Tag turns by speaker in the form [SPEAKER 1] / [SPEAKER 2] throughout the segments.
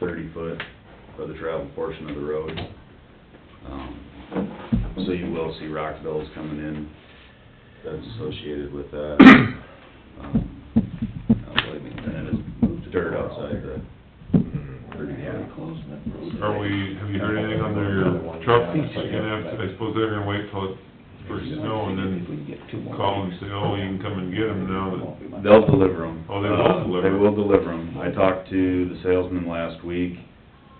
[SPEAKER 1] thirty foot of the travel portion of the road. Um, So you will see rock bills coming in that's associated with that. Um, now, believe me, Then it is moved to dirt outside the thirty foot.
[SPEAKER 2] Are we, have you heard anything on their truck? They're gonna have to, I suppose they're gonna wait till it first snow and then call and say, oh, you can come and get them now that,
[SPEAKER 1] They'll deliver them.
[SPEAKER 2] Oh, they will deliver 'em.
[SPEAKER 1] They will deliver 'em. I talked to the salesman last week.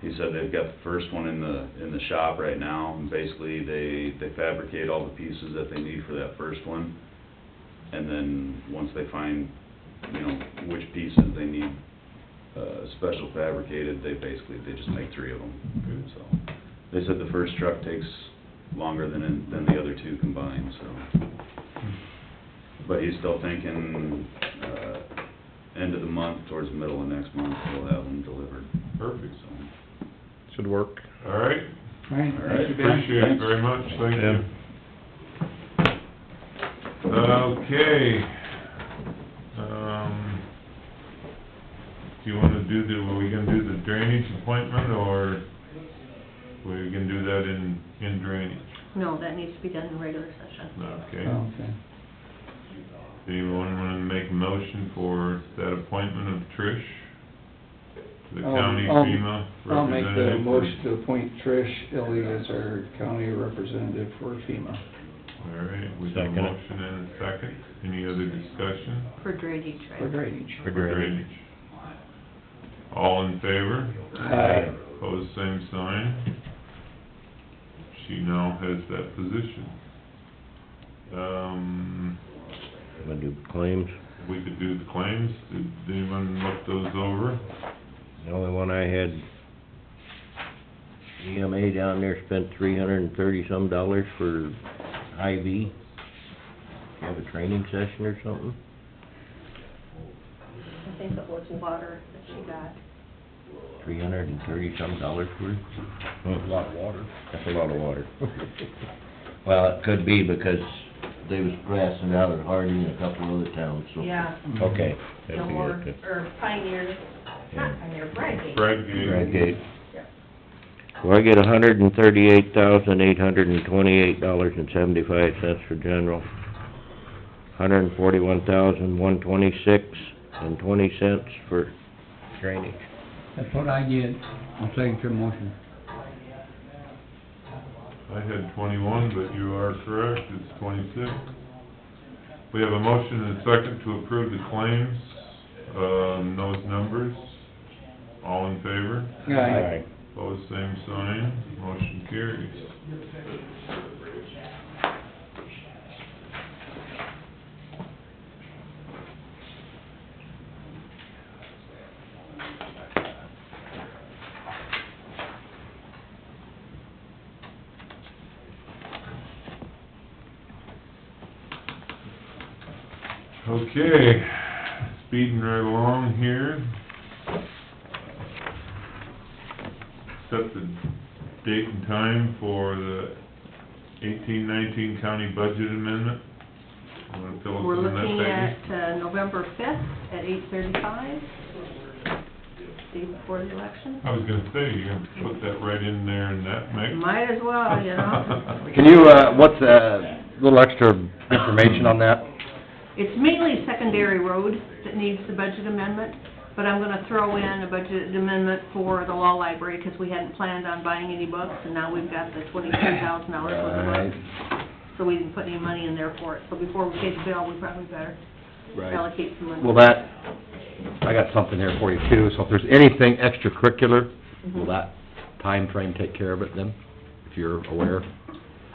[SPEAKER 1] He said they've got the first one in the, in the shop right now. And basically, they, they fabricate all the pieces that they need for that first one. And then, once they find, you know, which pieces they need, uh, special fabricated, they basically, they just make three of them. So, they said the first truck takes longer than, than the other two combined, so. But he's still thinking, uh, end of the month, towards the middle of next month, we'll have them delivered,
[SPEAKER 2] perfect.
[SPEAKER 1] so.
[SPEAKER 3] Should work.
[SPEAKER 2] All right,
[SPEAKER 4] All right, thank you, Ben.
[SPEAKER 2] appreciate it very much, thank
[SPEAKER 3] Yeah.
[SPEAKER 2] you. Okay, um, do you wanna do the, are we gonna do the drainage appointment or we can do that in, in drainage?
[SPEAKER 5] No, that needs to be done in regular session.
[SPEAKER 2] Okay.
[SPEAKER 4] Oh, Okay.
[SPEAKER 2] Do you want to make a motion for that appointment of Trish to the
[SPEAKER 4] I'll-
[SPEAKER 2] county
[SPEAKER 4] Um, Oh, I'll-
[SPEAKER 2] FEMA
[SPEAKER 4] I'll make the
[SPEAKER 2] representative?
[SPEAKER 4] motion to appoint Trish Illy as our county representative for FEMA.
[SPEAKER 2] All right, we have a
[SPEAKER 3] Second it.
[SPEAKER 2] motion and a second. Any other discussion?
[SPEAKER 5] For drainage, right?
[SPEAKER 4] For drainage.
[SPEAKER 3] For drainage.
[SPEAKER 2] All in favor?
[SPEAKER 4] Aye.
[SPEAKER 2] Pose same sign. She now has that position. Um,
[SPEAKER 3] I'm gonna do claims.
[SPEAKER 2] we could do the claims. Did anyone look those over?
[SPEAKER 3] The only one I had, EMA down there spent three hundred and thirty-some dollars for IV. Have a training session or something?
[SPEAKER 5] I think it was water that she got.
[SPEAKER 3] Three hundred and thirty-some dollars worth? That's a lot of water. That's a lot of water. Well, it could be because they was grassing out at Harding and a couple other towns, so.
[SPEAKER 6] Yeah,
[SPEAKER 3] Okay. that'd be it.
[SPEAKER 6] Gilmore, or Pioneer,
[SPEAKER 3] Yeah.
[SPEAKER 6] not Pioneer, Bradgate.
[SPEAKER 2] Brad gave.
[SPEAKER 3] Bradgate. So I get a hundred and thirty-eight thousand, eight hundred and twenty-eight dollars and seventy-five cents for general. Hundred and forty-one thousand, one twenty-six and twenty cents for drainage.
[SPEAKER 4] That's what I did. I'll second your motion.
[SPEAKER 2] I had twenty-one, but you are correct, it's twenty-six. We have a motion and a second to approve the claims, um, those numbers. All in favor?
[SPEAKER 4] Aye.
[SPEAKER 2] Pose same sign, motion carries. Okay, speeding right along here. Set the date and time for the eighteen nineteen county budget amendment. I'm gonna fill
[SPEAKER 5] We're
[SPEAKER 2] us in on
[SPEAKER 5] looking
[SPEAKER 2] that,
[SPEAKER 5] at uh, November fifth at eight thirty-five, day before the election.
[SPEAKER 2] Peggy. I was gonna say, you're gonna put that right in there in that mix.
[SPEAKER 5] Might as well, you know?
[SPEAKER 7] Can you, uh, what's, uh, little extra information on that?
[SPEAKER 5] It's mainly secondary road that needs the budget amendment, but I'm gonna throw in a budget amendment for the law library, because we hadn't planned on buying any books, and now we've got the twenty-three thousand dollars worth of books. So we didn't put any money in there for it, so before we pay the bill, we probably better allocate some money.
[SPEAKER 7] Will that, I got something here for you too, so if there's anything extracurricular, will that time frame take care of it then, if you're aware?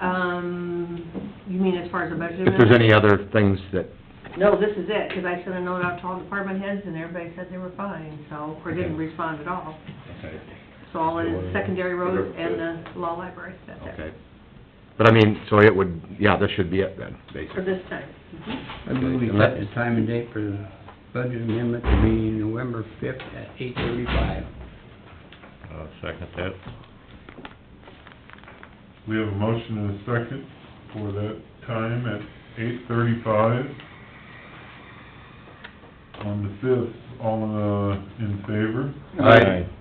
[SPEAKER 5] Um, you mean as far as the budget?
[SPEAKER 7] If there's any other things that,
[SPEAKER 5] No, this is it, because I sent a note out to all department heads, and everybody said they were fine, so, or didn't
[SPEAKER 7] Okay.
[SPEAKER 5] respond at all. So all it is secondary roads and the law library, that's it,
[SPEAKER 7] okay. But I mean, so it would, yeah, this should be it then,
[SPEAKER 5] for
[SPEAKER 7] basically.
[SPEAKER 5] this time.
[SPEAKER 8] I move we set the time and date for the budget amendment to be November fifth at eight thirty-five.
[SPEAKER 3] I'll second that.
[SPEAKER 2] We have a motion and a second for that time at eight thirty-five on the fifth. All, uh, in favor?
[SPEAKER 7] Aye.